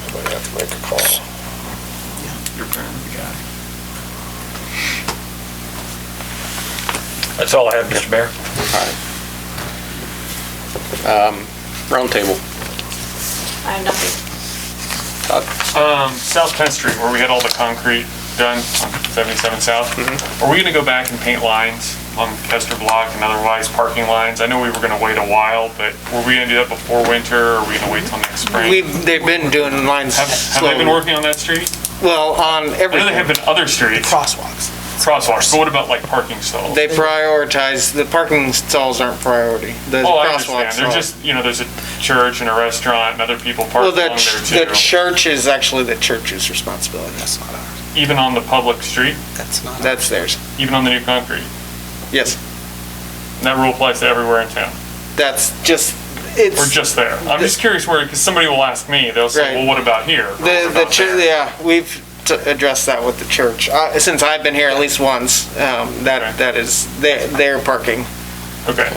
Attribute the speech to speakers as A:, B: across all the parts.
A: make a call.
B: You're burning the guy.
C: That's all I have, Mr. Mayor.
D: Roundtable.
E: I have nothing.
B: Um, South Penn Street, where we had all the concrete done on 77 South,
D: Mm-hmm.
B: are we going to go back and paint lines on Kester Block and otherwise parking lines? I know we were going to wait a while, but were we going to do that before winter, or are we going to wait till next spring?
D: We've, they've been doing lines
B: Have have they
D: slowly.
B: been working on that street?
D: Well, on
B: I know they have
D: everything,
B: been other streets,
F: crosswalks.
B: crosswalks, but what about like parking stalls?
D: they prioritize, the parking stalls aren't priority. The
B: Oh, I
D: crosswalks
B: understand, they're
D: are.
B: just, you know, there's a church and a restaurant, and other people
D: Well,
B: park along
D: the, ch- the
B: there too.
D: church is actually the church's responsibility.
F: That's not ours.
B: Even on the public street,
F: That's not ours.
D: That's theirs.
B: even on the new concrete.
D: Yes,
B: And That rule applies to everywhere in town.
D: that's just,
B: Or
D: it's,
B: just there? I'm just curious where, because somebody will ask me, they'll
D: Right.
B: say, well, what about here? Or
D: the,
B: what
D: the,
B: about
D: chur-
B: there?"
D: yeah, we've t- addressed that with the church. Uh, since I've been here at least once, um, that,
B: Okay.
D: that is their, their parking.
B: Okay,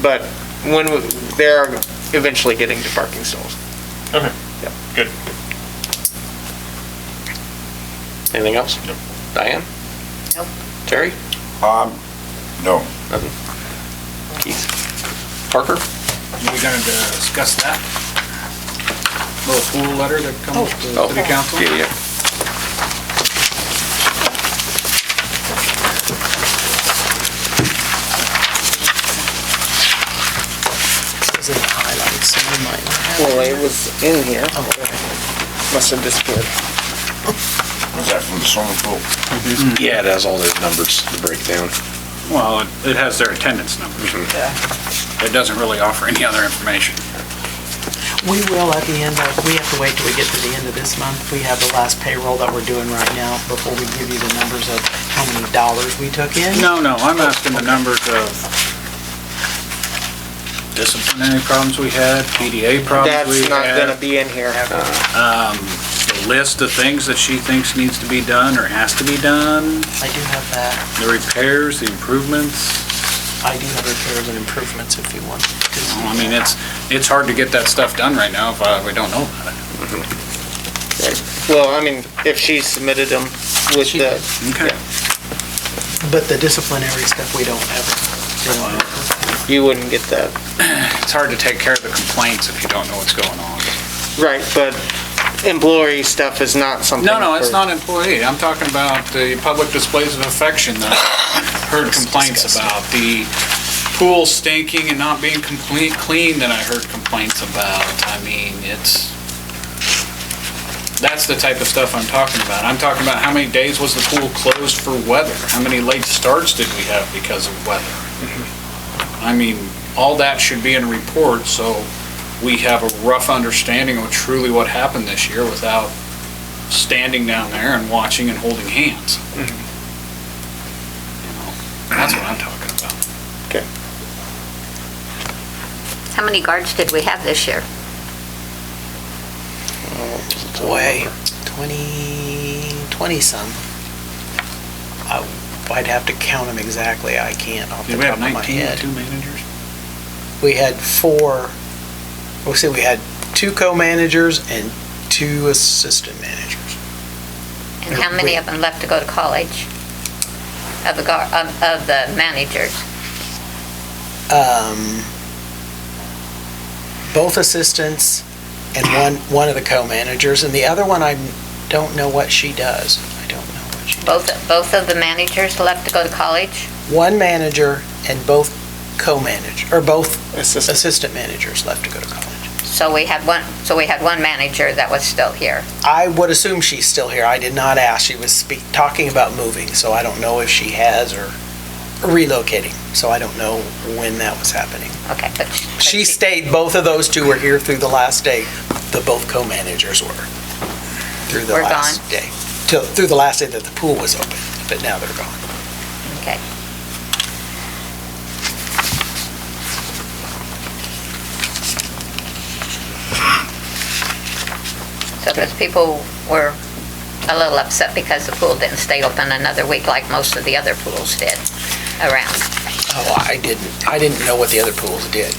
D: But when, we- they're eventually getting to parking stalls.
B: okay, good.
G: Anything else?
B: Nope.
G: Diane?
E: Nope.
G: Terry?
A: Um, no.
G: Parker?
F: We gonna discuss that? Little pool letter that
D: Oh,
F: comes to the council?
A: Yeah, yeah.
F: Is it highlights? You might not have-
D: Well, it was in here. Must have disappeared.
A: Was that from the swimming pool?
G: Yeah, it has all those numbers, the breakdown.
H: Well, it- it has their attendance numbers. It doesn't really offer any other information.
I: We will at the end of, we have to wait till we get to the end of this month. We have the last payroll that we're doing right now before we give you the numbers of how many dollars we took in.
H: No, no, I'm asking the numbers of disciplinary problems we had, PDA problems we
D: That's not gonna
H: had, uh,
D: be in here.
H: the list of things that she thinks needs to be done or has to be done,
I: I do have that.
H: the repairs, the improvements.
I: I do have repairs and improvements if you want.
H: Well, I mean, it's, it's hard to get that stuff done right now if uh, we don't know about it.
D: Well, I mean, if she submitted them with
I: She
D: the,
H: Okay.
I: But the disciplinary stuff, we don't ever. do.
D: you wouldn't get that.
H: It's hard to take care of the complaints if you don't know what's going on.
D: Right, but employee stuff is not something.
H: No, no, it's
D: for-
H: not employee. I'm talking about the public displays of affection that I heard complaints about. The pool stinking and not being complete, clean that I heard complaints about. I mean, it's, that's the type of stuff I'm talking about. I'm talking about how many days was the pool closed for weather? How many late starts did we have because of weather? I mean, all that should be in a report, so we have a rough understanding of truly what happened this year without standing down there and watching and holding hands. You know, That's what I'm talking about.
E: How many guards did we have this year?
I: Boy, 20, 20 some. I- I'd have to count them exactly. I can't off the
H: Did we
I: top
H: have
I: of my
H: 19,
I: head.
H: two managers?
I: we had four, we'll say we had two co-managers and two assistant managers.
E: And how many of them left to go to college? Of the guard, of of the managers?
I: Um, both assistants and one, one of the co-managers, and the other one I don't know what she does. I don't know what she does.
E: Both, both of the managers left to go to college?
I: One manager and both co-manage, or both
D: Assistant.
I: assistant managers left to go to college.
E: So we had one, so we had one manager that was still here.
I: I would assume she's still here. I did not ask. She was speak, talking about moving, so I don't know if she has or relocating. So I don't know when that was happening.
E: Okay, but. but
I: She stayed, both of those two were here through the last day. The both co-managers were through the
E: Were
I: last
E: gone.
I: day. Till, through the last day that the pool was open, but now they're gone.
E: Okay. So those people were a little upset because the pool didn't stay open another week like most of the other pools did around.
I: Oh, I didn't, I didn't know what the other pools did.